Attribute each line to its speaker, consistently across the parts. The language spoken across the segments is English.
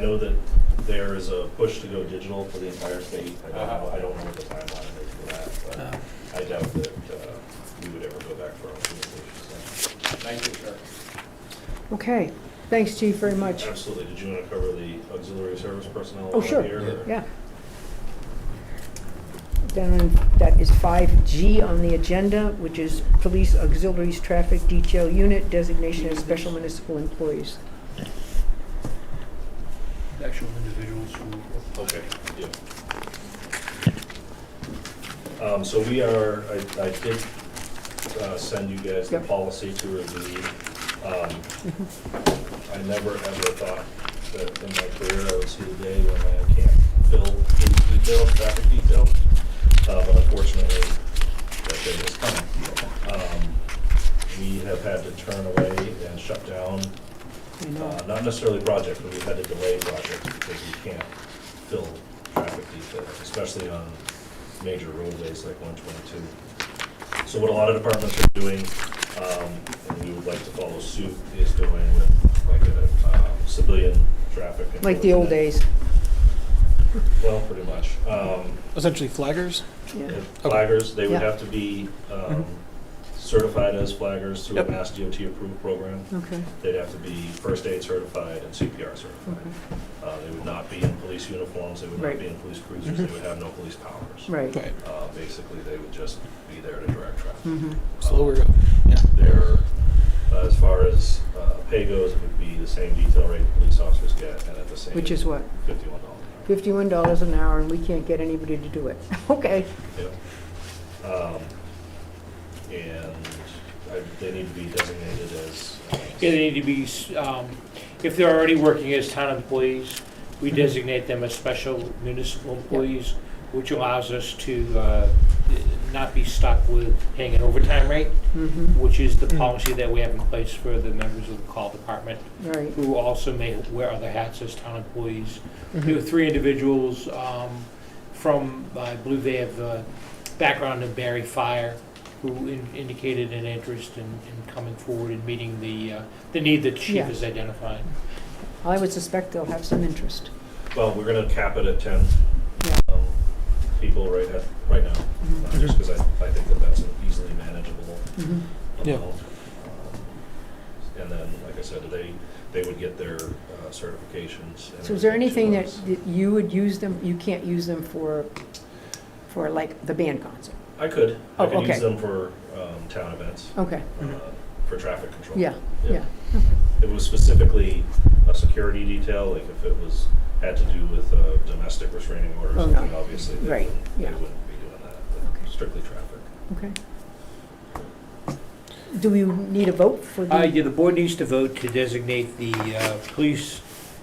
Speaker 1: know that there is a push to go digital for the entire state. I don't,
Speaker 2: Uh-huh.
Speaker 1: know- I don't know what the timeline is for that, but I doubt that uh, we would ever go back for our communications.
Speaker 3: Thank you, sir.
Speaker 2: Okay, thanks, Chief, very much.
Speaker 1: Absolutely. Did you want to cover the auxiliary service personnel?
Speaker 2: Oh,
Speaker 1: while I'm
Speaker 2: sure.
Speaker 1: here, or-
Speaker 2: Yeah. Then that is 5G on the agenda, which is Police Auxiliaries Traffic Detail Unit Designation of Special Municipal Employees.
Speaker 3: Actual individuals who.
Speaker 1: Okay, yeah. Um, so we are, I, I did, uh, send you guys the
Speaker 2: Yep.
Speaker 1: policy to review. Um, I never ever thought that in my career I would see the day when I can't fill in detail, traffic detail. Uh, but unfortunately, that day is coming. Um, we have had to turn away and shut down
Speaker 2: I know.
Speaker 1: uh, not necessarily project, but we've had to delay projects because we can't fill traffic detail, especially on major roadways like one twenty-two. So what a lot of departments are doing, um, and we would like to follow suit, is doing with like a um, civilian traffic.
Speaker 2: Like the old
Speaker 1: enforcement.
Speaker 2: days.
Speaker 1: Well, pretty much. Um,
Speaker 4: Essentially flaggers?
Speaker 2: Yeah.
Speaker 1: and Flaggers, they would
Speaker 2: Yeah. Mm-hmm.
Speaker 1: have to be um, certified as flaggers through a
Speaker 4: Yep.
Speaker 1: Mass DOT approved program.
Speaker 2: Okay,
Speaker 1: They'd have to be first aid certified and CPR certified.
Speaker 2: okay,
Speaker 1: Uh, They would not be in police uniforms, they would not
Speaker 2: Right.
Speaker 1: be in police cruisers, they would have no police powers.
Speaker 2: right.
Speaker 4: Right.
Speaker 1: Uh, Basically, they would just be there to direct traffic.
Speaker 2: Mm-hmm.
Speaker 4: Slower. Yeah.
Speaker 1: There, uh, as far as uh, pay goes, it would be the same detail rate police officers get, and at the same.
Speaker 2: Which is what?
Speaker 1: Fifty-one dollars.
Speaker 2: Fifty-one dollars an hour, and we can't get anybody to do it. Okay,
Speaker 1: Yeah. Um, And I- they need to be designated as. uh,
Speaker 3: Yeah, they need to be, um, if they're already working as town employees, we designate them as special municipal employees, which allows us to uh, not be stuck with paying an overtime rate,
Speaker 2: mm-hmm,
Speaker 3: which is the policy that we have in place for the members of the call department,
Speaker 2: right,
Speaker 3: who also may wear other hats as town employees. We have three individuals um, from, I believe they have uh, background in Barry Fire, who in- indicated an interest in in coming forward and meeting the, uh, the need that the chief
Speaker 2: Yeah.
Speaker 3: has identified.
Speaker 2: I would suspect they'll have some interest.
Speaker 1: Well, we're gonna cap it at ten
Speaker 2: Yeah.
Speaker 1: um, people right at, right now,
Speaker 2: Mhm.
Speaker 1: uh, just because I, I think that that's an easily manageable
Speaker 2: Mhm.
Speaker 4: Yeah.
Speaker 1: amount. Um, And then, like I said, they, they would get their uh, certifications. and
Speaker 2: So is there
Speaker 1: everything
Speaker 2: anything
Speaker 1: to
Speaker 2: that
Speaker 1: us.
Speaker 2: that you would use them, you can't use them for, for like the band concert?
Speaker 1: I could, I
Speaker 2: Oh,
Speaker 1: could use
Speaker 2: okay.
Speaker 1: them for um, town events,
Speaker 2: Okay,
Speaker 1: uh,
Speaker 4: Mhm.
Speaker 1: for traffic control.
Speaker 2: yeah,
Speaker 1: Yeah.
Speaker 2: yeah.
Speaker 1: It was specifically a security detail, like if it was, had to do with uh, domestic restraining orders,
Speaker 2: Oh,
Speaker 1: I
Speaker 2: no.
Speaker 1: think obviously they
Speaker 2: Right,
Speaker 1: wouldn't, they
Speaker 2: yeah.
Speaker 1: wouldn't be doing that, but
Speaker 2: Okay.
Speaker 1: strictly traffic.
Speaker 2: Okay. Do we need a vote for the?
Speaker 3: Uh, yeah, the board needs to vote to designate the uh, police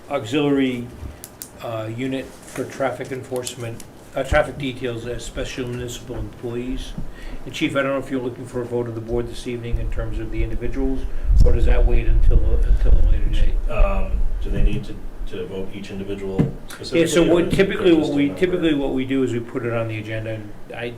Speaker 3: auxiliary uh, unit for traffic enforcement, uh, traffic details as special municipal employees. And Chief, I don't know if you're looking for a vote of the board this evening in terms of the individuals, or does that wait until, until a later date?
Speaker 1: Um, do they need to, to vote each individual specifically?
Speaker 3: Yeah, so
Speaker 1: or
Speaker 3: what
Speaker 1: is it
Speaker 3: typically, what
Speaker 1: just a
Speaker 3: we,
Speaker 1: number?
Speaker 3: typically what we do is we put it on the agenda, and I,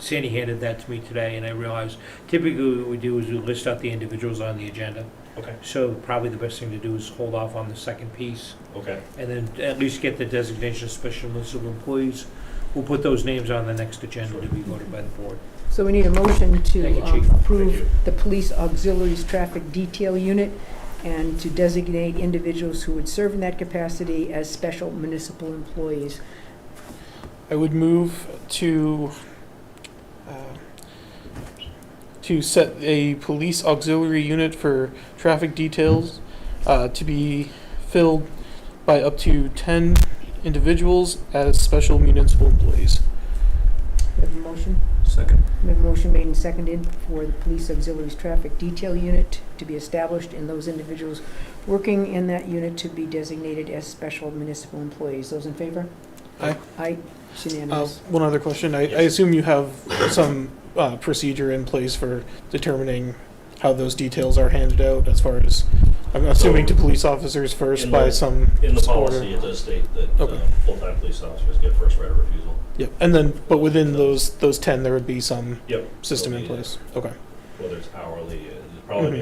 Speaker 3: Sandy handed that to me today, and I realized typically what we do is we list out the individuals on the agenda.
Speaker 1: Okay,
Speaker 3: So probably the best thing to do is hold off on the second piece,
Speaker 1: okay,
Speaker 3: and then at least get the designation of special municipal employees. We'll put those names on the next agenda to be voted by the board.
Speaker 2: So we need a motion
Speaker 3: Thank
Speaker 2: to
Speaker 3: you,
Speaker 2: um,
Speaker 3: Chief.
Speaker 1: Thank
Speaker 2: approve
Speaker 1: you.
Speaker 2: the police auxiliaries traffic detail unit and to designate individuals who would serve in that capacity as special municipal employees.
Speaker 4: I would move to uh, to set a police auxiliary unit for traffic details uh, to be filled by up to ten individuals as special municipal employees.
Speaker 2: We have a motion?
Speaker 1: second.
Speaker 2: We have a motion made and seconded for the police auxiliaries traffic detail unit to be established and those individuals working in that unit to be designated as special municipal employees. Those in favor?
Speaker 4: Aye.
Speaker 2: Aye, It's
Speaker 4: Uh,
Speaker 2: unanimous.
Speaker 4: one other question. I, I
Speaker 1: Yes.
Speaker 4: assume you have some uh, procedure in place for determining how those details are handed out as far as I'm assuming to police officers first
Speaker 1: In
Speaker 4: by
Speaker 1: the-
Speaker 4: some
Speaker 1: In the
Speaker 4: order.
Speaker 1: policy, it does state that
Speaker 4: Okay.
Speaker 1: um, full-time police officers get first right of refusal.
Speaker 4: Yep, and then, but within those, those ten, there would be some
Speaker 1: Yep.
Speaker 4: system in
Speaker 1: There'll be,
Speaker 4: place, okay.
Speaker 1: Whether it's hourly, uh, probably
Speaker 3: Mm-hmm.
Speaker 4: Mhm.